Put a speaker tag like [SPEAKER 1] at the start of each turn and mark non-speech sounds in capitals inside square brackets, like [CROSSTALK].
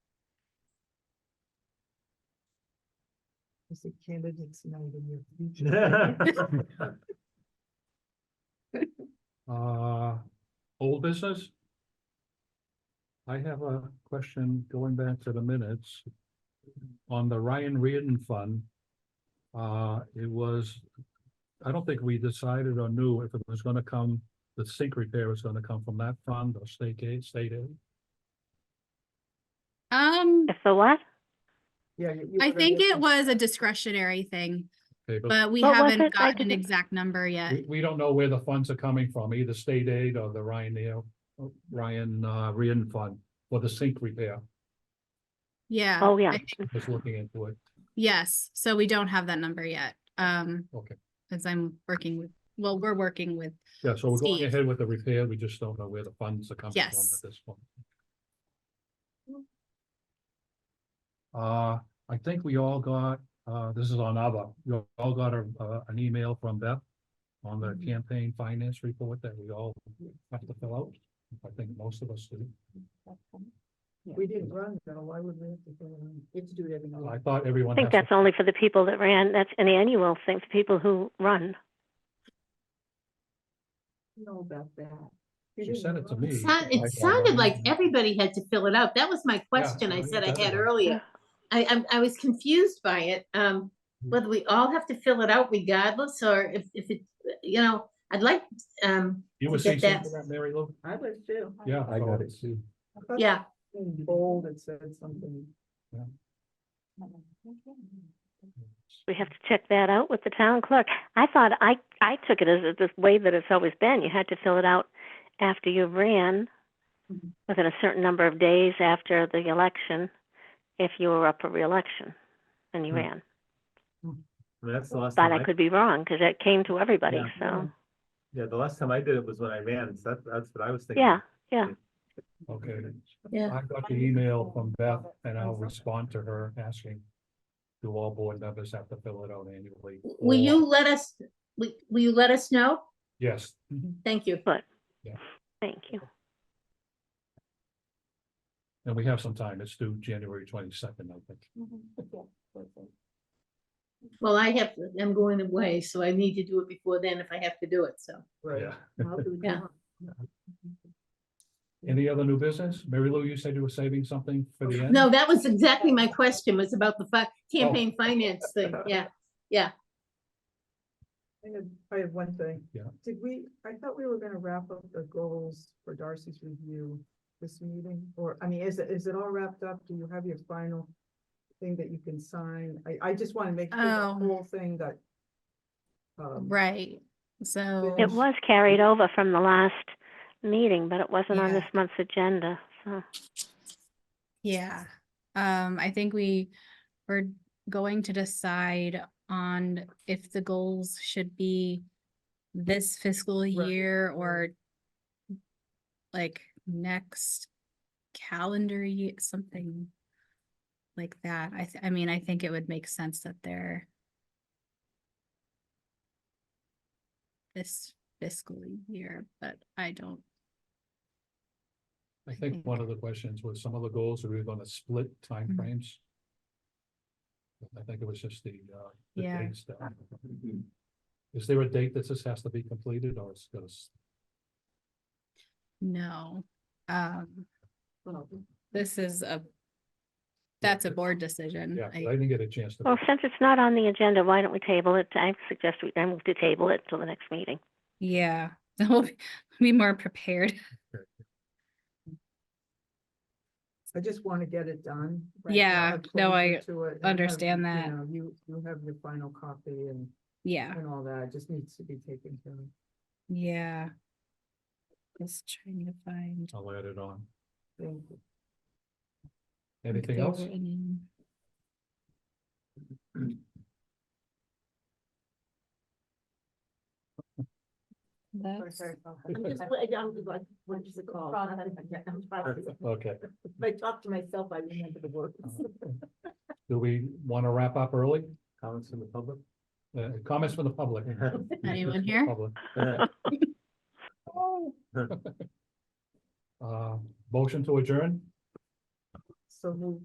[SPEAKER 1] It's a candidate's night in
[SPEAKER 2] [LAUGHS]
[SPEAKER 1] your future.
[SPEAKER 2] Uh, old business? I have a question going back to the minutes. On the Ryan Reardon Fund. Uh, it was, I don't think we decided or knew if it was gonna come, the sink repair was gonna come from that fund or state aid, state aid.
[SPEAKER 3] Um,
[SPEAKER 4] If the what?
[SPEAKER 1] Yeah. you- you
[SPEAKER 3] I
[SPEAKER 1] would've
[SPEAKER 3] think it
[SPEAKER 1] written-
[SPEAKER 3] was a discretionary thing,
[SPEAKER 2] Okay, but
[SPEAKER 3] but we
[SPEAKER 4] What was
[SPEAKER 3] haven't
[SPEAKER 4] it? I
[SPEAKER 3] got an
[SPEAKER 4] didn't-
[SPEAKER 3] exact number yet.
[SPEAKER 2] we, we don't know where the funds are coming from, either state aid or the Ryan, Ryan, uh, Reardon Fund for the sink repair.
[SPEAKER 3] Yeah.
[SPEAKER 4] Oh, yeah.
[SPEAKER 3] I think-
[SPEAKER 2] Just looking into it.
[SPEAKER 3] Yes, so we don't have that number yet. Um,
[SPEAKER 2] Okay.
[SPEAKER 3] as I'm working with, well, we're working with,
[SPEAKER 2] Yeah, so we're going
[SPEAKER 3] Steve.
[SPEAKER 2] ahead with the repair. We just don't know where the funds are coming from
[SPEAKER 3] Yes.
[SPEAKER 2] at this point. Uh, I think we all got, uh, this is on ABBA. You all got a, uh, an email from Beth on the
[SPEAKER 3] Mm-hmm.
[SPEAKER 1] Mhm.
[SPEAKER 2] campaign finance report that we all have to fill out. I think most of us do.
[SPEAKER 1] We didn't run, so why would we have to go on? We have to do it every
[SPEAKER 2] Oh, I
[SPEAKER 1] year.
[SPEAKER 2] thought everyone.
[SPEAKER 4] I think
[SPEAKER 2] has
[SPEAKER 4] that's only for the people that ran, that's an annual thing for people who run.
[SPEAKER 1] Know about that.
[SPEAKER 2] She sent it to me.
[SPEAKER 5] It sound-
[SPEAKER 2] I- I-
[SPEAKER 5] It sounded like everybody had to fill it out. That was my question I
[SPEAKER 2] so
[SPEAKER 5] said I had
[SPEAKER 2] definitely.
[SPEAKER 5] earlier. I, I'm- I, was confused by it, um, whether we all have to fill it out regardless, or if, if it, you know, I'd like, um,
[SPEAKER 2] You were
[SPEAKER 5] to get
[SPEAKER 2] CC'd for
[SPEAKER 5] that.
[SPEAKER 2] that, Mary Lou?
[SPEAKER 1] I was too.
[SPEAKER 2] Yeah.
[SPEAKER 6] I got it
[SPEAKER 2] too.
[SPEAKER 1] I thought
[SPEAKER 5] yeah,
[SPEAKER 1] In bold, it said something.
[SPEAKER 2] Yeah.
[SPEAKER 4] We have to check that out with the town clerk. I thought, I, I took it as the way that it's always been. You had to fill it out after you ran
[SPEAKER 5] Mhm.
[SPEAKER 4] within a certain number of days after the election, if you were up for reelection and you
[SPEAKER 6] Hmm.
[SPEAKER 4] ran.
[SPEAKER 6] That's the last
[SPEAKER 4] But
[SPEAKER 6] time
[SPEAKER 4] I
[SPEAKER 6] I,
[SPEAKER 4] could be wrong, because it came to everybody,
[SPEAKER 6] Yeah.
[SPEAKER 4] so,
[SPEAKER 6] yeah, the last time I did it was when I ran, so that, that's what I was thinking.
[SPEAKER 4] yeah.
[SPEAKER 2] Okay.
[SPEAKER 5] yeah.
[SPEAKER 2] I got the email from Beth and I'll respond to her asking. Do all board members have to fill it out annually?
[SPEAKER 5] Will
[SPEAKER 2] Or-
[SPEAKER 5] you let us, will, will you let us know?
[SPEAKER 2] Yes,
[SPEAKER 5] Thank you.
[SPEAKER 4] Thank you.
[SPEAKER 2] and we have some time. It's due January twenty-second, I think.
[SPEAKER 1] [LAUGHS]
[SPEAKER 5] Well, I have, I'm going away, so I need to do it before then if I have to do it, so.
[SPEAKER 2] Yeah.
[SPEAKER 1] How do we
[SPEAKER 5] Yeah.
[SPEAKER 1] come up?
[SPEAKER 2] Any other new business? Mary Lou, you said you were saving something for the end?
[SPEAKER 5] No, that was exactly my question, was about the fi- campaign finance thing, yeah.
[SPEAKER 1] I have, I have one thing.
[SPEAKER 2] Yeah.
[SPEAKER 1] Did we, I thought we were gonna wrap up the goals for Darcy's review this meeting, or, I mean, is it, is it all wrapped up? Do you have your final thing that you can sign? I, I just wanna make sure
[SPEAKER 3] Oh.
[SPEAKER 1] the whole thing that um,
[SPEAKER 3] right, so.
[SPEAKER 4] It was carried over from the last meeting, but it wasn't on
[SPEAKER 3] Yeah.
[SPEAKER 4] this month's agenda, so.
[SPEAKER 3] Yeah, um, I think we were going to decide on if the goals should be this fiscal year or like next calendar year, something like that. I, th- I mean, I think it would make sense that they're this fiscal year, but I don't,
[SPEAKER 2] I think one of the questions was some of the goals, are we gonna split
[SPEAKER 3] Mm-hmm.
[SPEAKER 2] timeframes? I think it was just the, uh. the
[SPEAKER 3] Yeah.
[SPEAKER 2] dates that- Is there a date that this has to be completed or it's gonna? s-
[SPEAKER 3] know. Um,
[SPEAKER 1] well,
[SPEAKER 3] This is a, that's a board decision.
[SPEAKER 2] Yeah, 'cause
[SPEAKER 3] I-
[SPEAKER 2] I didn't get a chance to.
[SPEAKER 4] Well, since it's not on the agenda, why don't we table it? I suggest we, I move to table it till the next meeting.
[SPEAKER 3] Yeah, [LAUGHS] so we'll be- be more prepared. [LAUGHS]
[SPEAKER 1] I just wanna get it done. right,
[SPEAKER 3] Yeah,
[SPEAKER 1] have
[SPEAKER 3] no,
[SPEAKER 1] closure
[SPEAKER 3] I
[SPEAKER 1] to it, and have,
[SPEAKER 3] understand
[SPEAKER 1] you
[SPEAKER 3] that.
[SPEAKER 1] know, You, you have your final copy and,
[SPEAKER 3] Yeah,
[SPEAKER 1] and all that, it just needs to be taken care of.
[SPEAKER 3] yeah. Just trying to find.
[SPEAKER 2] I'll add it on.
[SPEAKER 1] Thank you.
[SPEAKER 3] if
[SPEAKER 2] Anything
[SPEAKER 3] they
[SPEAKER 2] else?
[SPEAKER 3] were
[SPEAKER 2] [CLEARS THROAT]
[SPEAKER 3] any- That's,
[SPEAKER 7] I'm just, I- I'm like, what is it called?
[SPEAKER 2] Okay,
[SPEAKER 7] If I talk to myself, I remember the words.
[SPEAKER 2] do we want to wrap up early?
[SPEAKER 6] Comments from the public?
[SPEAKER 2] Uh, Comments from the public?
[SPEAKER 3] [LAUGHS] anyone here?
[SPEAKER 2] Public. [LAUGHS]
[SPEAKER 7] Oh.
[SPEAKER 2] Uh, Motion to adjourn?
[SPEAKER 1] So move